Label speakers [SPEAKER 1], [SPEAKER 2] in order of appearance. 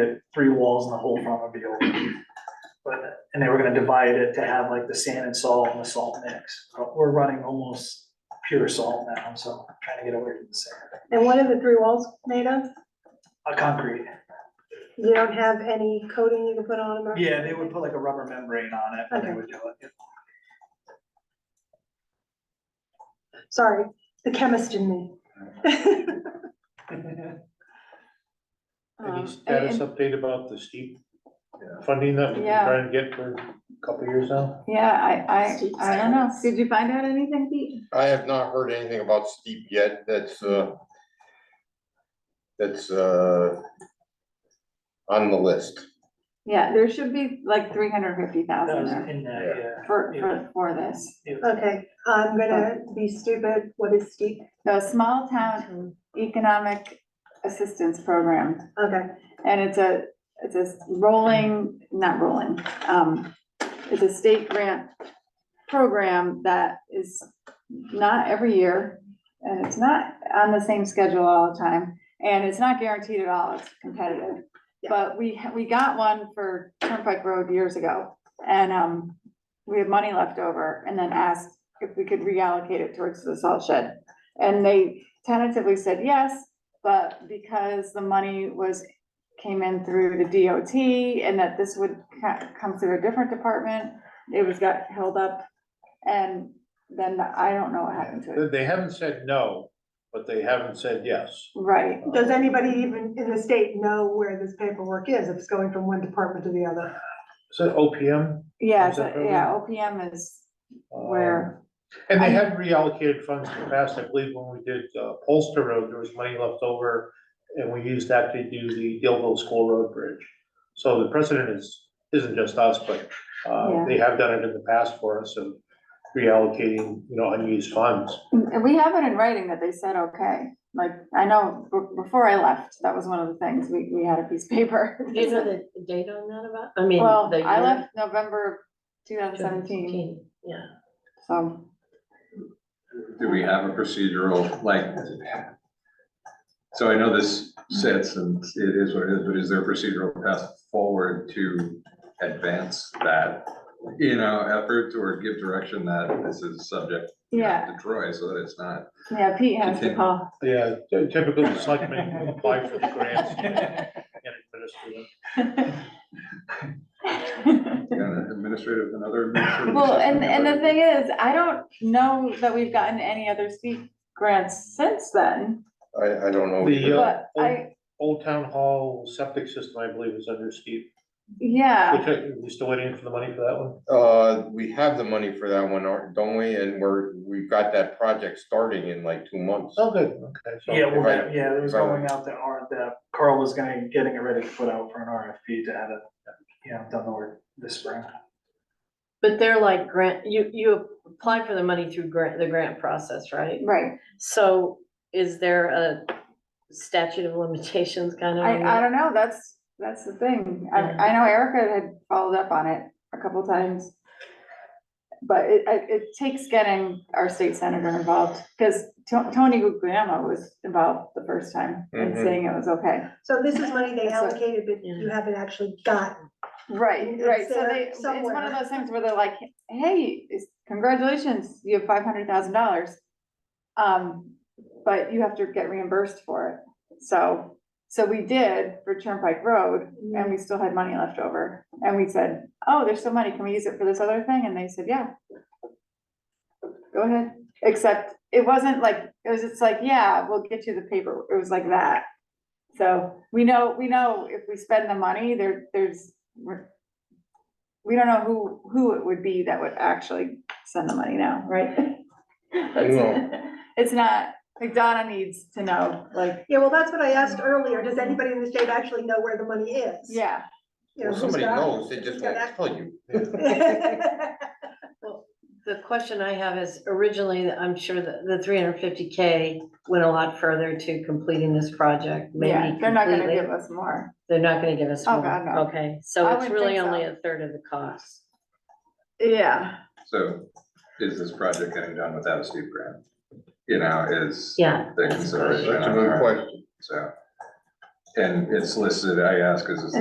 [SPEAKER 1] the three walls and the whole front would be open. But, and they were gonna divide it to have like the sand and salt and the salt mix. But We're running almost pure salt now, so I'm trying to get away from the sand.
[SPEAKER 2] And what are the three walls made of?
[SPEAKER 1] A concrete,
[SPEAKER 2] You don't have any coating you can put on them? or-
[SPEAKER 1] yeah, they would put like a rubber membrane on it and they would do it.
[SPEAKER 2] Sorry, the chemist in me.
[SPEAKER 3] Any
[SPEAKER 4] Um,
[SPEAKER 3] status
[SPEAKER 4] and-
[SPEAKER 3] update about the steep funding that we've been
[SPEAKER 4] Yeah.
[SPEAKER 3] trying to get for a couple years now?
[SPEAKER 4] Yeah, I,
[SPEAKER 2] Steep
[SPEAKER 4] I, I don't know. Did you find out anything, Pete?
[SPEAKER 5] I have not heard anything about steep yet, that's, uh, that's, uh, on the list.
[SPEAKER 4] Yeah, there should be like three hundred fifty
[SPEAKER 1] That
[SPEAKER 4] thousand
[SPEAKER 1] was
[SPEAKER 4] there
[SPEAKER 1] in that, yeah.
[SPEAKER 4] for, for, for this.
[SPEAKER 1] It was-
[SPEAKER 2] Okay, I'm gonna be stupid. What is steep?
[SPEAKER 4] The Small Town Economic Assistance Program,
[SPEAKER 2] Okay,
[SPEAKER 4] and it's a, it's a rolling, not rolling, um, it's a state grant program that is not every year, and it's not on the same schedule all the time, and it's not guaranteed at all, it's competitive.
[SPEAKER 2] Yeah.
[SPEAKER 4] But we, ha- we got one for Turnpike Road years ago, and, um, we had money left over, and then asked if we could reallocate it towards the salt shed. And they tentatively said yes, but because the money was, came in through the DOT, and that this would ca- come through a different department, it was got held up, and then I don't know what happened to it.
[SPEAKER 3] They- They haven't said no, but they haven't said yes.
[SPEAKER 4] Right,
[SPEAKER 2] does anybody even in the state know where this paperwork is, if it's going from one department to the other?
[SPEAKER 3] Is that OPM?
[SPEAKER 4] yeah,
[SPEAKER 3] Is that
[SPEAKER 4] so- yeah, OPM is
[SPEAKER 3] Um,
[SPEAKER 4] where,
[SPEAKER 3] And they have reallocated funds in the past, I believe when we did uh, Polster Road, there was money left over, and we used that to do the Dillville School Road Bridge. So the precedent is, isn't just us, but uh,
[SPEAKER 4] Yeah.
[SPEAKER 3] they have done it in the past for us, of reallocating, you know, unused funds.
[SPEAKER 4] and we have it in writing that they said, okay. Like, I know, b- before I left, that was one of the things, we, we had a piece of paper.
[SPEAKER 6] Do you know the date on that about, I mean,
[SPEAKER 4] Well,
[SPEAKER 6] the year?
[SPEAKER 4] I left November two thousand seventeen,
[SPEAKER 6] 2017, Yeah,
[SPEAKER 4] so,
[SPEAKER 7] Do we have a procedural, like, so I know this sits and it is what it is, but is there a procedural path forward to advance that? You know, effort or give direction that this is subject you know,
[SPEAKER 4] yeah,
[SPEAKER 7] to Troy, so that it's not.
[SPEAKER 4] yeah, Pete has to
[SPEAKER 7] Continue.
[SPEAKER 4] call.
[SPEAKER 3] Yeah, typically, it's like when you apply for the grants. and administer them.
[SPEAKER 7] you know, Administrative, another. administrative
[SPEAKER 4] Well, and,
[SPEAKER 7] assistant,
[SPEAKER 4] and the
[SPEAKER 7] but-
[SPEAKER 4] thing is, I don't know that we've gotten any other steep grants since then,
[SPEAKER 5] I, I don't know.
[SPEAKER 3] The, uh,
[SPEAKER 4] but I,
[SPEAKER 3] Old Town Hall septic system, I believe, is under Steve,
[SPEAKER 4] yeah.
[SPEAKER 3] which I, we still waiting for the money for that one?
[SPEAKER 5] Uh, we have the money for that one, aren't- don't we? And we're, we've got that project starting in like two months.
[SPEAKER 3] Oh, good, okay, so.
[SPEAKER 1] Yeah, well,
[SPEAKER 5] Right.
[SPEAKER 1] that- yeah, it was
[SPEAKER 5] Right.
[SPEAKER 1] going out that R, that Carl was gonna, getting it ready to put out for an RFP to have it, you know, done the work this spring.
[SPEAKER 6] but they're like grant, you, you apply for the money through grant, the grant process, right?
[SPEAKER 4] Right,
[SPEAKER 6] So is there a statute of limitations kind of? on
[SPEAKER 4] I, I
[SPEAKER 6] that?
[SPEAKER 4] don't know, that's, that's the thing, I,
[SPEAKER 6] Yeah.
[SPEAKER 4] I know Erica had followed up on it a couple times. But it, it, it takes getting our state senator involved, because Tony Guglielmo was involved the first time and
[SPEAKER 5] Mhm.
[SPEAKER 4] saying it was okay.
[SPEAKER 2] So this is money they
[SPEAKER 4] That's what-
[SPEAKER 2] allocated, but you haven't actually gotten.
[SPEAKER 4] Right,
[SPEAKER 2] It's
[SPEAKER 4] right, so
[SPEAKER 2] there
[SPEAKER 4] they, it's one of
[SPEAKER 2] somewhere.
[SPEAKER 4] those things where they're like, hey, it's- congratulations, you have five hundred thousand dollars. Um, but you have to get reimbursed for it, so, so we did for Turnpike Road, and we still had money left over. And we said, oh, there's still money, can we use it for this other thing? And they said, yeah. Go ahead, except it wasn't like, it was just like, yeah, we'll get you the paper, it was like that. So we know, we know if we spend the money, there, there's, we're- we don't know who, who it would be that would actually send the money now, right? That's- It's not, like Donna needs to know, like,
[SPEAKER 2] Yeah, well, that's what I asked earlier. Does anybody in the state actually know where the money is?
[SPEAKER 4] yeah,
[SPEAKER 2] You know, who's
[SPEAKER 5] Well, somebody
[SPEAKER 2] got it?
[SPEAKER 5] knows, they just
[SPEAKER 2] Who's got
[SPEAKER 5] won't
[SPEAKER 2] access?
[SPEAKER 5] tell you.
[SPEAKER 6] The question I have is originally, I'm sure that the three hundred fifty K went a lot further to completing this project, maybe
[SPEAKER 4] yeah, they're not gonna
[SPEAKER 6] completely.
[SPEAKER 4] give us more.
[SPEAKER 6] They're not gonna give us
[SPEAKER 4] Oh,
[SPEAKER 6] more.
[SPEAKER 4] God, no.
[SPEAKER 6] Okay,
[SPEAKER 4] I
[SPEAKER 6] so it's
[SPEAKER 4] wouldn't
[SPEAKER 6] really
[SPEAKER 4] think so.
[SPEAKER 6] only a third of the cost.
[SPEAKER 4] Yeah,
[SPEAKER 7] So is this project getting done without a steep grant? You know, is
[SPEAKER 6] Yeah,
[SPEAKER 7] the consideration.
[SPEAKER 5] That's a
[SPEAKER 7] on
[SPEAKER 5] good
[SPEAKER 7] our-
[SPEAKER 5] question.
[SPEAKER 7] So And it's listed, I ask, because it's